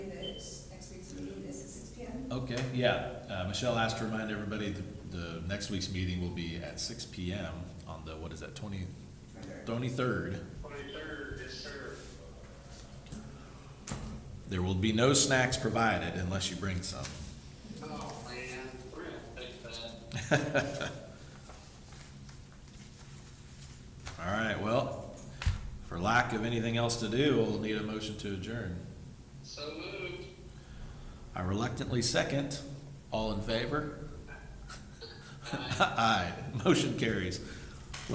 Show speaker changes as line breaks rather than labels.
Okay, yeah. Uh, Michelle asked to remind everybody, the, the next week's meeting will be at six P M on the, what is that, twenty, twenty-third?
Twenty-third, yes, sir.
There will be no snacks provided unless you bring some.
Oh, man. We're gonna fix that.
All right, well, for lack of anything else to do, we'll need a motion to adjourn.
So moved.
I reluctantly second. All in favor? Aye. Motion carries.